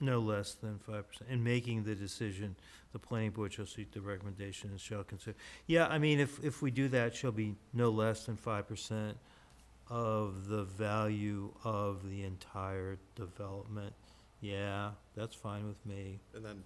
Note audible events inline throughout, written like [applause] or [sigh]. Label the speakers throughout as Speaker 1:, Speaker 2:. Speaker 1: no less than five percent. In making the decision, the planning board shall seek the recommendation and shall consider. Yeah, I mean, if, if we do that, shall be no less than five percent of the value of the entire development. Yeah, that's fine with me.
Speaker 2: And then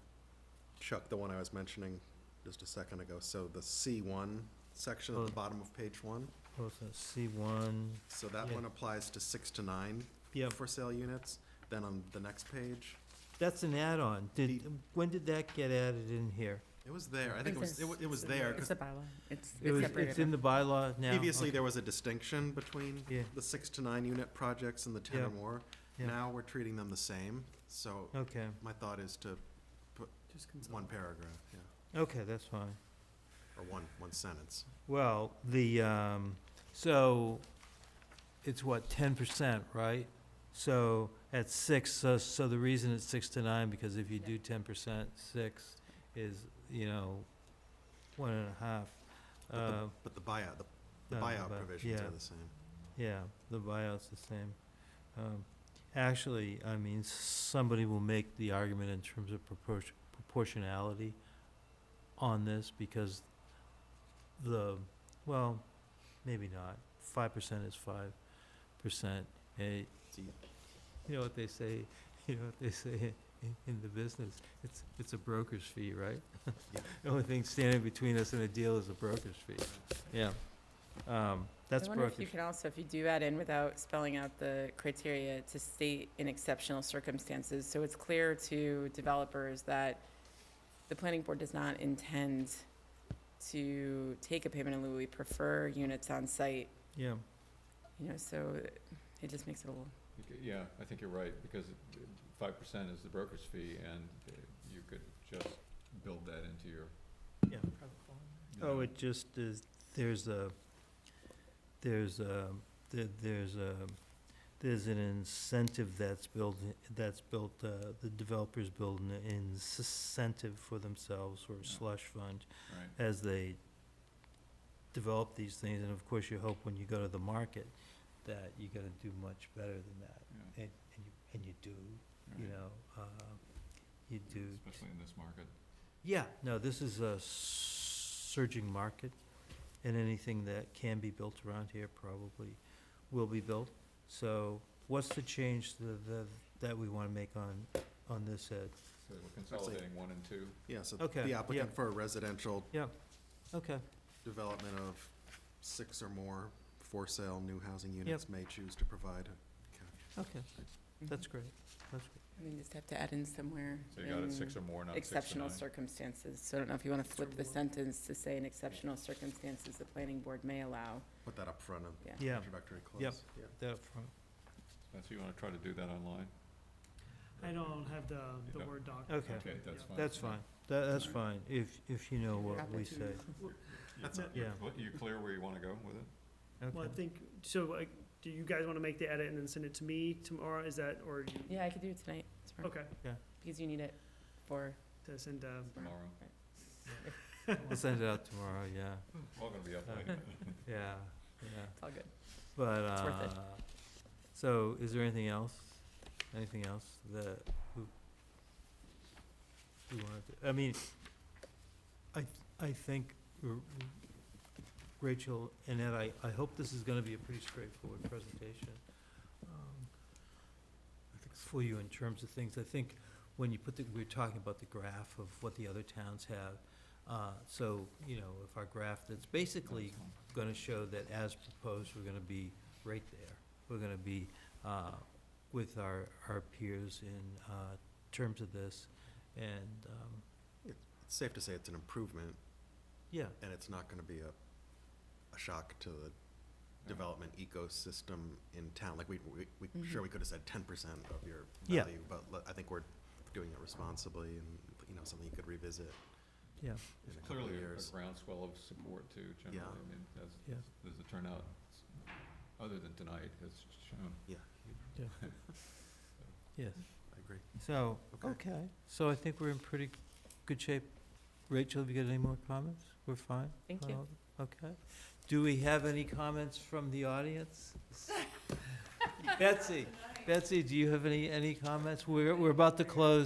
Speaker 2: Chuck, the one I was mentioning just a second ago, so the C one section at
Speaker 1: Oh.
Speaker 2: the bottom of page one,
Speaker 1: What's that, C one?
Speaker 2: so that
Speaker 1: Yeah.
Speaker 2: one applies to six to nine
Speaker 1: Yeah,
Speaker 2: for sale units. Then on the next page,
Speaker 1: that's an add-on. Did, when did that get added in here?
Speaker 2: it was there, I think it was, it wa- it was there,
Speaker 3: It's
Speaker 2: because
Speaker 3: a bylaw. It's
Speaker 1: It was,
Speaker 3: separated
Speaker 1: it's in the bylaw now?
Speaker 2: previously
Speaker 1: Okay.
Speaker 2: there was a distinction between
Speaker 1: Yeah,
Speaker 2: the six to nine unit projects and the ten
Speaker 1: Yeah.
Speaker 2: or more.
Speaker 1: Yeah.
Speaker 2: Now we're treating them the same, so
Speaker 1: okay,
Speaker 2: my thought is to
Speaker 3: Just
Speaker 2: one paragraph, yeah,
Speaker 1: okay, that's fine.
Speaker 2: or one, one sentence.
Speaker 1: Well, the, um, so, it's what, ten percent, right? So, at six, so, so the reason it's six to nine, because if you do ten percent, six is, you know, one and a half.
Speaker 2: But the-
Speaker 1: Uh,
Speaker 2: But the buyout, the- the
Speaker 1: uh,
Speaker 2: buyout
Speaker 1: but-
Speaker 2: provisions
Speaker 1: yeah.
Speaker 2: are the same.
Speaker 1: Yeah, the buyout's the same. Um, Actually, I mean, somebody will make the argument in terms of proportion- proportionality on this because the, well, maybe not. Five percent is five percent. You
Speaker 2: See,
Speaker 1: know what they say, [laughs] you know what they say in- in the business? It's, it's a broker's fee, right?
Speaker 2: Yeah.
Speaker 1: [laughs] The only thing standing between us and a deal is a broker's fee. Yeah. Um, That's
Speaker 3: I wonder if
Speaker 1: brokerage.
Speaker 3: you could also, if you do add in without spelling out the criteria to state in exceptional circumstances, so it's clear to developers that the planning board does not intend to take a payment in lieu. We prefer units on site,
Speaker 1: Yeah.
Speaker 3: you know, so it just makes it a little,
Speaker 4: Okay, Yeah, I think you're right, because five percent is the broker's fee, and uh, you could just build that into your.
Speaker 1: Yeah.
Speaker 4: you know,
Speaker 1: Oh, it just is, there's a, there's a, there- there's a, there's an incentive that's built, that's built, uh, the developers build an incentive for themselves or
Speaker 4: Yeah.
Speaker 1: slush fund
Speaker 4: Right,
Speaker 1: as they develop these things, and of course you hope when you go to the market that you're gonna do much better than that,
Speaker 4: yeah,
Speaker 1: and, and you, and you do, you
Speaker 4: right.
Speaker 1: know, uh, you do.
Speaker 4: Especially in this market.
Speaker 1: Yeah, no, this is a surging market, and anything that can be built around here probably will be built. So what's the change that, that- that we want to make on, on this, Ed?
Speaker 4: So we're consolidating one and two.
Speaker 2: Yeah, so
Speaker 1: Okay,
Speaker 2: the
Speaker 1: yeah.
Speaker 2: applicant for a residential
Speaker 1: Okay,
Speaker 2: development of six or more for sale new housing units may choose to provide. a ca-
Speaker 1: okay, that's great, that's great.
Speaker 3: I mean, mm-hmm. just have to add in somewhere.
Speaker 4: So you got it six or
Speaker 3: in
Speaker 4: more, not six to
Speaker 3: Exceptional
Speaker 4: nine.
Speaker 3: circumstances, so I don't know if you want to flip the
Speaker 1: Sure.
Speaker 3: sentence to say in exceptional circumstances, the planning board may allow.
Speaker 2: Put that up front of
Speaker 3: Yeah.
Speaker 1: Yeah,
Speaker 2: introductory clause.
Speaker 1: Yep.
Speaker 2: Yeah.
Speaker 1: that front,
Speaker 4: That's, you wanna try to do that online?
Speaker 5: I don't have the,
Speaker 4: You
Speaker 5: the
Speaker 4: don't?
Speaker 5: Word doc.
Speaker 1: Okay.
Speaker 4: Okay, that's fine.
Speaker 1: that's
Speaker 4: yeah.
Speaker 1: fine, that, that's fine,
Speaker 4: Alright.
Speaker 1: if, if you know what
Speaker 3: Happy
Speaker 1: we
Speaker 3: to-
Speaker 1: say.
Speaker 2: That's
Speaker 4: You-
Speaker 2: it.
Speaker 4: you
Speaker 1: Yeah.
Speaker 4: cl- You clear where you wanna go with it?
Speaker 5: Well, I
Speaker 1: Okay,
Speaker 5: think, so, like, do you guys want to make the edit and then send it to me tomorrow? Is that, or you,
Speaker 3: Yeah, I could do it tonight, tomorrow,
Speaker 5: okay,
Speaker 3: because you need it for
Speaker 5: to send, uh,
Speaker 4: Tomorrow,
Speaker 1: we'll [laughs] send it out tomorrow, yeah,
Speaker 4: all gonna be up
Speaker 1: Uh,
Speaker 4: late.
Speaker 1: yeah, yeah.
Speaker 3: It's all good.
Speaker 1: But,
Speaker 3: It's worth
Speaker 1: uh,
Speaker 3: it.
Speaker 1: so is there anything else, anything else that we, we wanted to, I mean, I, th- I think r- r- Rachel and Ed, I, I hope this is gonna be a pretty straightforward presentation. um, For you in terms of things, I think when you put the, we we're talking about the graph of what the other towns have. Uh, so, you know, if our graph that's basically
Speaker 4: That's fine.
Speaker 1: gonna show that as proposed, we're gonna be right there. We're gonna be, uh, with our, our peers in, uh, terms of this, and, um,
Speaker 2: It's safe to say it's an improvement,
Speaker 1: yeah,
Speaker 2: and it's not gonna be a, a shock to the
Speaker 4: Yeah.
Speaker 2: development ecosystem in town. Like, we, we,
Speaker 5: Mm-hmm.
Speaker 2: we, sure,
Speaker 3: Mhm.
Speaker 2: we could have said ten percent of your
Speaker 1: Yeah.
Speaker 2: value, but le- I think we're doing it responsibly and, you know, something you could revisit
Speaker 1: yeah,
Speaker 2: in a couple of
Speaker 4: Clearly, a- a
Speaker 2: years.
Speaker 4: groundswell of support too, generally,
Speaker 2: Yeah.
Speaker 4: I mean, that's,
Speaker 1: Yeah.
Speaker 4: there's a turnout, s- other than tonight, has shown.
Speaker 1: yes.
Speaker 2: I agree.
Speaker 1: So,
Speaker 2: Okay.
Speaker 1: okay, so I think we're in pretty good shape. Rachel, have you got any more comments? We're fine?
Speaker 3: Thank
Speaker 1: on
Speaker 3: you.
Speaker 1: all- Okay. Do we have any comments from the audience?
Speaker 3: [laughs]
Speaker 1: Betsy, Betsy, do you have any, any comments? We're, we're about to close.